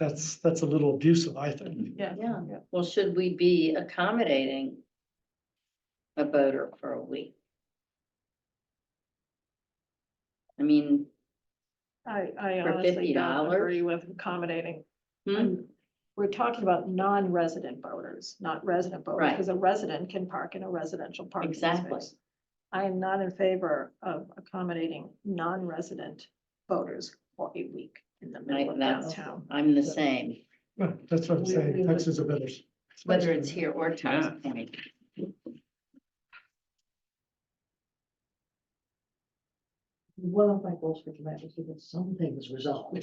That's, that's a little abusive, I think. Yeah. Yeah, Yeah. well, should we be accommodating a boater for a week? I mean, I, I For honestly don't $50? agree with accommodating. hmm, We're talking about non-resident boaters, not resident boaters, Right. because a resident can park in a residential parking Exactly. space. I am not in favor of accommodating non-resident boaters for a week in the middle Right, of that's- downtown. I'm the same, Right, That's what I'm We- we saying, would- Texas is a better. whether it's here or Towns Point. one of my goals for tonight was to get some things resolved.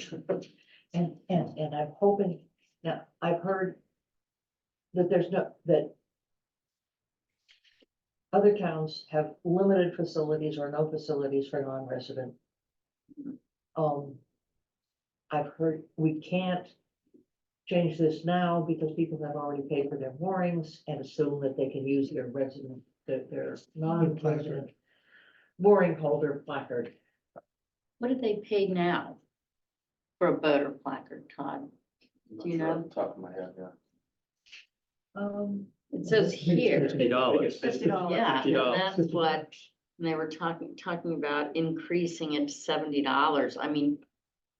And, and, and I'm hoping, now, I've heard that there's no, that other towns have limited facilities or no facilities for non-resident. Um, I've heard, we can't change this now because people have already paid for their moorings and assume that they can use their resident, their, their non-resident mooring holder placard. What do they pay now for a boater placard, Todd? Do you Not sure know? off the Top of my head, yeah. Um, It says here, Fifty dollars. Fifty dollars. yeah, Fifty dollars. that's what, and they were talking, talking about increasing it to seventy dollars, I mean,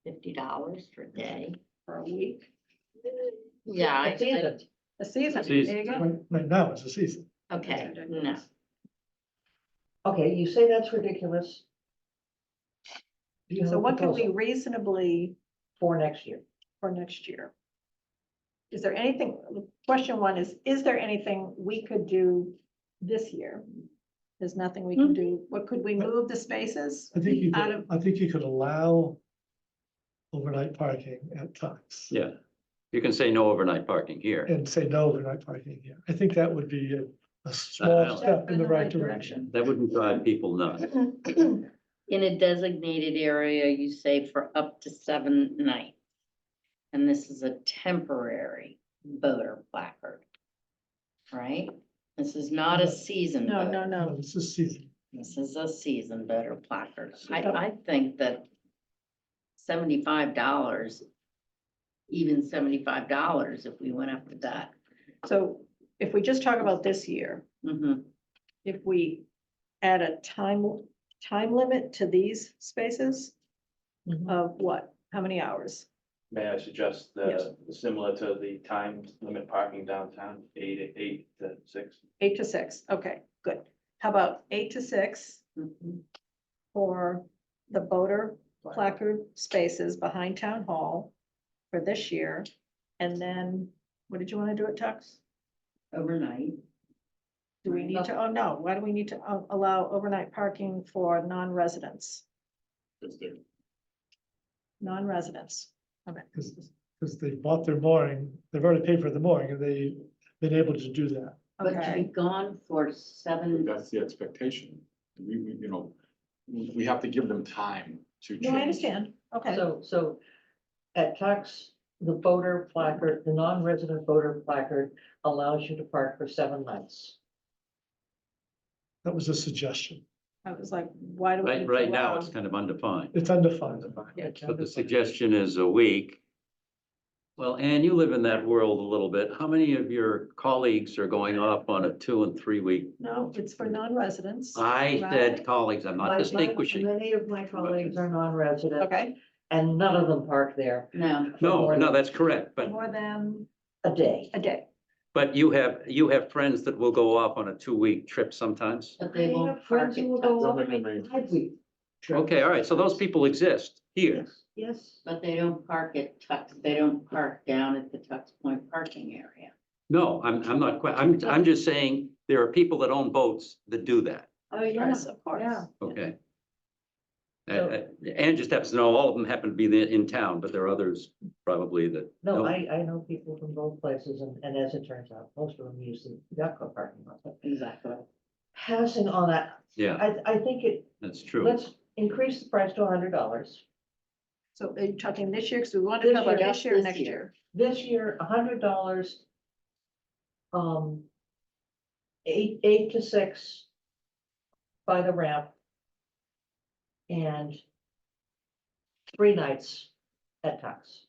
fifty dollars per day. For a week, Yeah, I- it's in I- it. a season, there Season. you go. Right right now is the season. okay, That's no. ridiculous. Okay, you say that's ridiculous. Do you have So a what could we proposal reasonably For next year. for next year? Is there anything, question one is, is there anything we could do this year? There's nothing we can do. What, could we move the spaces? Hmm? I think you, Out could- of- I think you could allow overnight parking at times Yeah, you can say no overnight parking here. and say no overnight parking here. I think that would be a- a don't- small step in the right direction. That wouldn't drive people nuts. In a designated area, you say for up to seven nights. And this is a temporary voter placard. Right? This is not a season No, voter. no, No, no. this is season. This is a season voter placard. I, Yep. I think that seventy-five dollars, even seventy-five dollars if we went up to that. So if we just talk about this year, Mhm. if we add a time, time limit to these spaces Mm-hmm. Mhm. of what? How many hours? May I suggest Yes. the, similar to the time limit parking downtown, eight, eight to six? Eight to six. Okay, good. How about eight to six Mhm. for the voter placard spaces behind town hall for this year. And then, what did you want to do at Tux? Overnight. Do we need to, oh, no, why do we need to uh, allow overnight parking for non-residents? Non-residents. Because, because they bought their mooring, they've already paid for the mooring and they've been able to do that. But to be Okay, gone for seven. That's the expectation. We, we, you know, we we have to give them time to. no, I change. understand. Okay, So, so at tax, the voter placard, the non-resident voter placard allows you to park for seven nights. That was a suggestion. I was like, why do we? need Right, to right now, allow- it's kind of undefined. It's undefined. Yeah. It's But the undefined. suggestion is a week. Well, Anne, you live in that world a little bit. How many of your colleagues are going off on a two and three week? No, it's for non-residents. I Right. said colleagues, I'm My- not my- distinguishing. Many of my colleagues are non-resident Okay, and none of them park there No, No, no, that's correct, but, more than a day. a day. but you have, you have friends that will go off on a two week trip sometimes. but they I won't have park friends it. who will go Don't up make and them five week. trips. Okay, all right, so those people exist here. Yes, Yes. But they don't park at Tux, they don't park down at the Tux Point parking area. No, I'm, I'm not quite, I'm, I'm just saying there are people that own boats that do that. Oh, Yes, of course. yeah. Okay. So- And, and just happens to know, all of them happen to be the- in town, but there are others probably that, No, No. I, I know people from both places and, and as it turns out, most of them use the Yucca parking lot. But Exactly. Passing on that, yeah, I, I think it, that's true. let's increase the price to hundred dollars. So are you talking this year? Because we want to This cover year, this year, and this next year. year. This year, hundred dollars. Um. Eight, eight to six. By the ramp. And. Three nights at Tux.